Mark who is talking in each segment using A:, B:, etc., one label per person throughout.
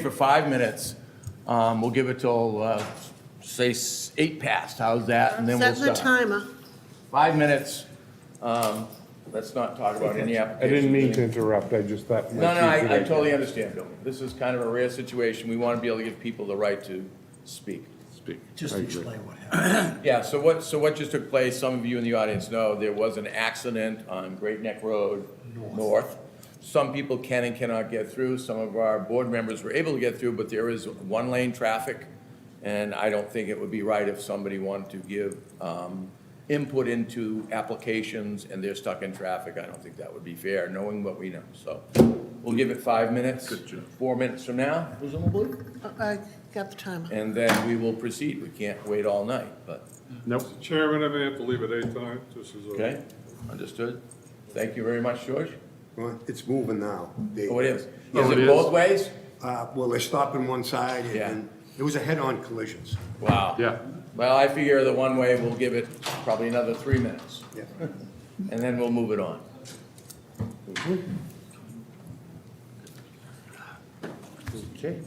A: for five minutes. Um, We'll give it till, uh, say, s- eight past, how's that? And then we'll
B: Set the
A: start.
B: timer.
A: Five minutes. Um, Let's not talk about any
C: I
A: application.
C: didn't mean to interrupt, I just thought.
A: No, no, I I totally understand, Bill. This is kind of a rare situation. We want to be able to give people the right to speak.
D: Just explain what happened.
A: Yeah, so what, so what just took place, some of you in the audience know, there was an accident on Great Neck Road North. Some people can and cannot get through, some of our board members were able to get through, but there is one-lane traffic, and I don't think it would be right if somebody wanted to give um, input into applications and they're stuck in traffic. I don't think that would be fair, knowing what we know, so we'll give it five minutes. Four minutes from now, presumably,
B: Oh, I got the timer.
A: and then we will proceed. We can't wait all night, but.
C: Nope.
E: Chairman, I may have to leave at eight tonight, this is a.
A: Okay, understood. Thank you very much, George.
F: Well, it's moving now. They-
A: Oh, it is. Is
E: Oh, it
A: it
E: is?
A: both ways?
F: Uh, Well, they're stopping one side, and-
A: Yeah.
F: and it was a head-on collision. so,
A: Wow.
E: Yeah.
A: Well, I figure the one way will give it probably another three minutes,
F: yeah.
A: and then we'll move it on. Okay.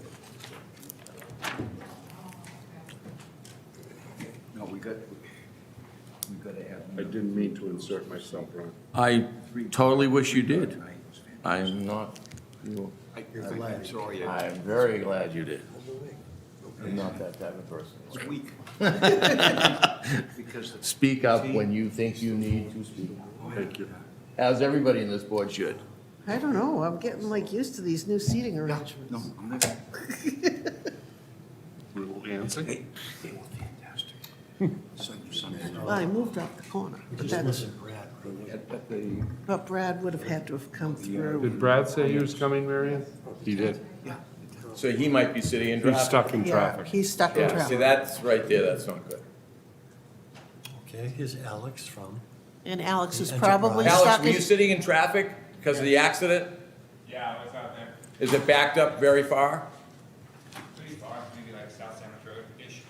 D: No, we got, we got to have.
C: I didn't mean to insert myself, Ron.
A: I totally wish you did. I'm not,
D: I'm sorry, I-
A: I'm very glad you did. I'm not that type of person.
D: it's weak. Because the
A: Speak up when you think you need to speak,
C: Thank you.
A: as everybody in this board should.
B: I don't know, I'm getting like used to these new seating arrangements.
D: No, I'm not.
C: Little Anson?
D: They they were fantastic. Some- some-
B: Well, I moved out the corner, but that's,
D: At- at the-
B: but Brad would have had to have come through.
C: Did Brad say he was coming, Marion? He did.
D: Yeah.
A: So he might be sitting in
C: He's
A: traffic.
C: stuck in
B: Yeah,
C: traffic.
B: he's stuck in
A: Yeah, see,
B: traffic.
A: that's right there, that's not good.
G: Okay, here's Alex from,
B: And Alex is
G: Enterprise.
B: probably
A: Alex,
B: stuck
A: were you
B: in,
A: sitting in traffic because of the accident?
H: Yeah, I was out there
A: Is it backed up very far?
H: pretty far, maybe like South Sandwich Road-ish.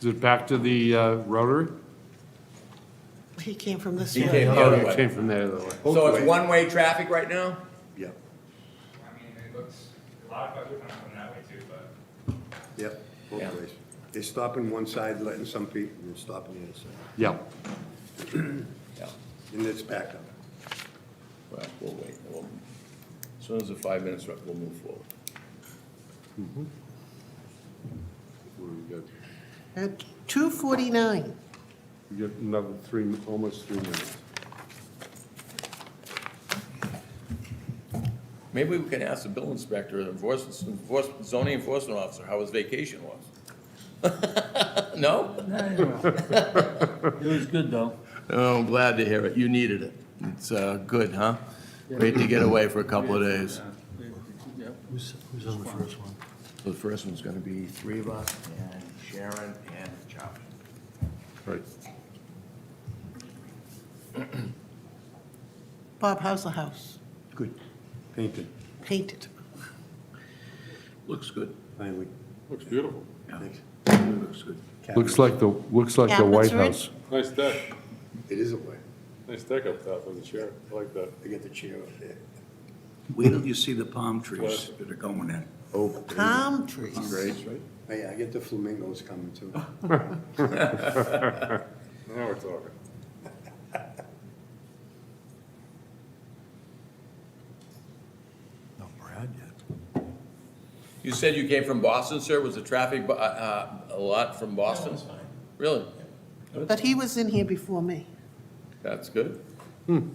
C: Is it back to the uh, Rotary?
B: he came from this
A: He
B: way.
A: came the
C: Oh,
A: other
C: it
A: way.
C: came from the other way.
A: So
F: Both
A: it's
F: ways.
A: one-way traffic right now?
F: Yep,
H: I mean, it looks, a lot of folks are coming that way too, but
F: yep,
A: Yeah.
F: both ways. They're stopping one side, letting some people, and they're stopping the other side.
C: Yeah.
A: Yeah.
F: And it's back up.
A: Well, we'll wait. We'll- As soon as the five minutes are up, we'll move forward.
C: We got-
B: At 2:49,
C: we got another three, almost three minutes.
A: Maybe we can ask the bill inspector, enforcement, enforcement- zoning enforcement officer, how his vacation was. No?
I: It was good, though.
A: Oh, I'm glad to hear it. You needed it. It's uh, good, huh? Great to get away for a couple of days.
I: Yep.
G: who's, who's on the first one?
A: The first one's gonna be three of us, and Sharon and Charlie.
C: Right.
B: Bob, how's the house?
F: Good. Painted,
B: Painted.
A: Looks good.
F: finally.
E: Looks beautiful,
F: Thanks.
A: Looks good.
C: Looks like the, looks like the
B: Cabinets
C: White
B: are in?
C: House.
E: nice deck,
F: It is a way.
E: nice deck up top with the chair, I like that.
F: They got the chair up there.
D: Wait till you see the palm trees that are going in.
F: Oh,
B: Palm trees.
F: right? Oh, Yeah, I get the flamingos coming too.
E: Now we're talking.
D: No, Brad yet.
A: You said you came from Boston, sir? Was the traffic bu- uh, uh, a lot from Boston? Really?
B: But he was in here before me.
A: That's good. Hmm.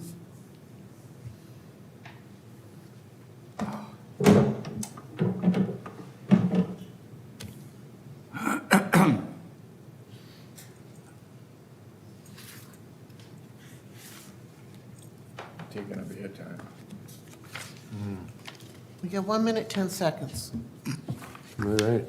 A: Taking up your time.
B: We got one minute, 10 seconds.
C: All right.